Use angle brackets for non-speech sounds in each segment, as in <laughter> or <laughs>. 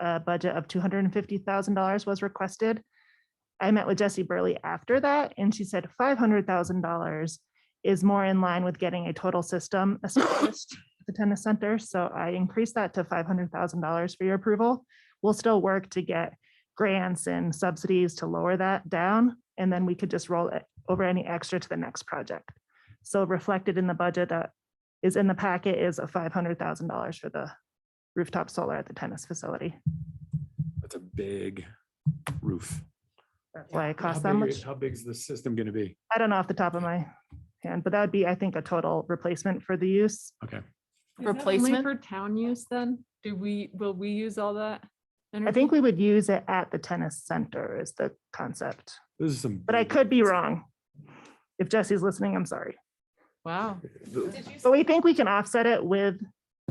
a budget of two hundred and fifty thousand dollars was requested. I met with Jessie Burley after that, and she said five hundred thousand dollars is more in line with getting a total system established at the tennis center. So I increased that to five hundred thousand dollars for your approval. We'll still work to get grants and subsidies to lower that down, and then we could just roll it over any extra to the next project. So reflected in the budget that is in the packet is a five hundred thousand dollars for the rooftop solar at the tennis facility. That's a big roof. That's why it How costs that big- much. How big is the system going to be? I don't know off the top of my hand, but that would be, I think, a total replacement for the use. Okay. Is that only Replacement? For town use then? Do we, will we use all that? Mm-hmm. I think we would use it at the tennis center is the concept, This is some. but I big- could Mm-hmm. be wrong. If Jesse's listening, I'm sorry. Wow. But we think we can offset it with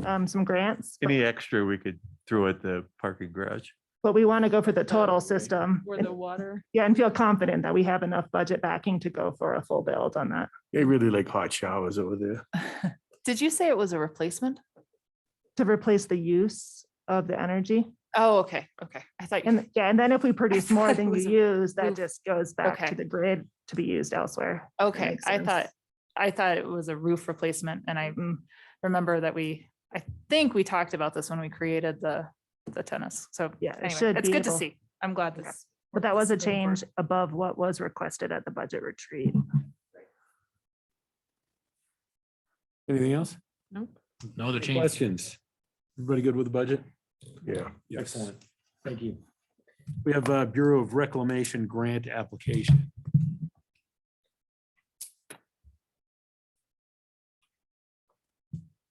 um, some grants, but- Any extra we could throw at the parking garage? but we want to go for the The- total system. Where and- the water, Yeah, and feel confident that we have enough budget backing to go for a full build on that, They really like hot showers over there. Did you say it was a replacement? to replace the use of the energy. Oh, okay, okay. I thought, you And yeah, and then if we <laughs> produce more thought it than you was a use, that roof. just goes back to Okay. the grid to be used elsewhere. if that okay, makes I thought, sense. I thought it was a roof replacement and I Mm, remember that we, I think we talked about this when we created the, the tennis. So Yeah, it anyway, should it's be good to able- see. I'm glad Okay. this. But that was a this is going forward. change above what was requested at the budget retreat. Anything else? Nope. No other change. Questions? Everybody good with the budget? Yeah. Excellent. Thank you. We have a Bureau of Reclamation grant application.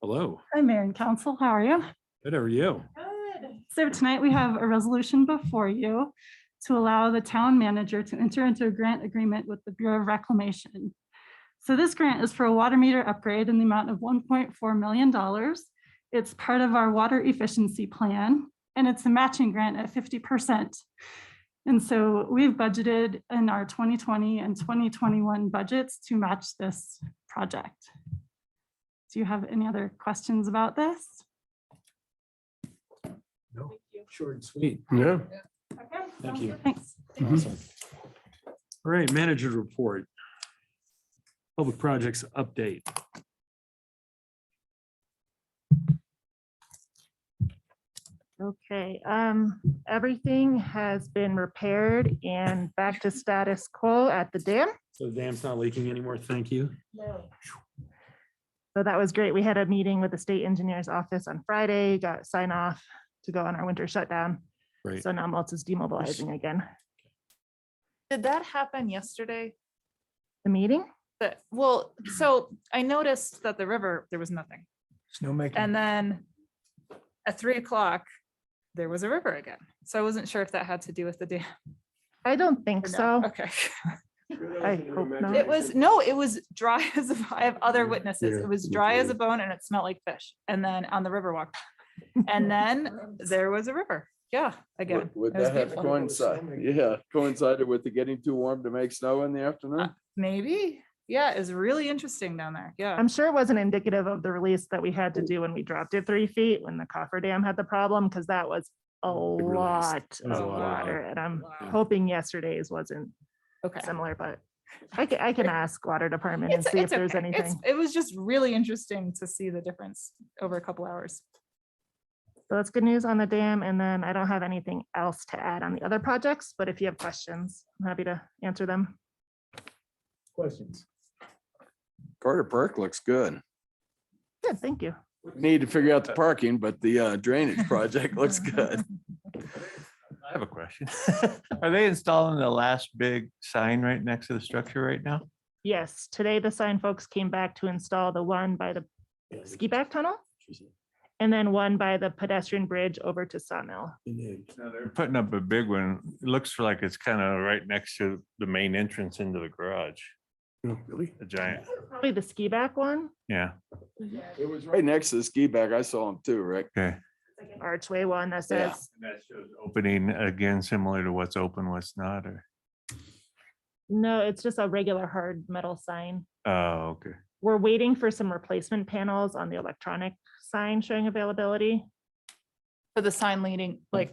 Hello, Hi, Mayor and Council. How are you? good, how are you? So tonight we have a resolution before you to allow the town manager to enter into a grant agreement with the Bureau of Reclamation. So this grant is for a water meter upgrade in the amount of $1.4 million. It's part of our water efficiency plan, and it's a matching grant at 50%. And so we've budgeted in our 2020 and 2021 budgets to match this project. Do you have any other questions about this? Short and sweet. Yeah. Okay. Thank you. Thanks. Awesome. All right, manager report. Public projects update. Okay, um, everything has been repaired and back to status quo at the dam. So the dam's not leaking anymore, thank you. So that was great. We had a meeting with the state engineer's office on Friday, got sign off to go on our winter shutdown. Right. So now Maltz is demobilizing again. Did that happen yesterday? The meeting? That, well, so I noticed that the river, there was nothing. Snowmaking. And then at three o'clock, there was a river again. So I wasn't sure if that had to do with the dam. I don't think or not. so. uh, Okay. I hope not. It was, no, it was dry as, a- I have other witnesses. It was dry as a bone and it smelled like fish. And then on <laughs> the Riverwalk. And then there was a river. Yeah, again. Would would it was that have beautiful. coincided? Yeah, coincided with the getting too warm to make snow in the afternoon? Maybe. Yeah, it's really interesting down there. Yeah. I'm sure it wasn't indicative of the release that we had to do when we dropped it three feet when the coffer dam had the problem, because that was a Big release. lot was a of lot of water. And I'm Wow. hoping yesterday's wasn't Okay. similar, but I can, I can ask water department and It's, see if it's there's okay. It's, anything. it was just really interesting to see the difference over a couple hours. So that's good news on the dam. And then I don't have anything else to add on the other projects, but if you have questions, I'm happy to answer them. Questions? Carter Park looks good. Good, thank you. Need to figure out the parking, but the uh, drainage project looks <laughs> good. I have a question. <laughs> Are they installing the last big sign right next to the structure right now? Yes, today the sign folks came back to install the one by the ski back tunnel and then one by the pedestrian bridge over to Sawmill. No, They're putting up a big one. It looks like it's kind of right next to the main entrance into the garage, Really? the giant, Probably the ski back one, yeah, It was right next to the ski back. I saw him too, Rick. okay. archway one that Yeah. says, And that shows Opening again, similar to what's open, what's not, or, no, it's just a regular hard metal sign. oh, okay. We're waiting for some replacement panels on the electronic sign showing availability. For the sign leading, like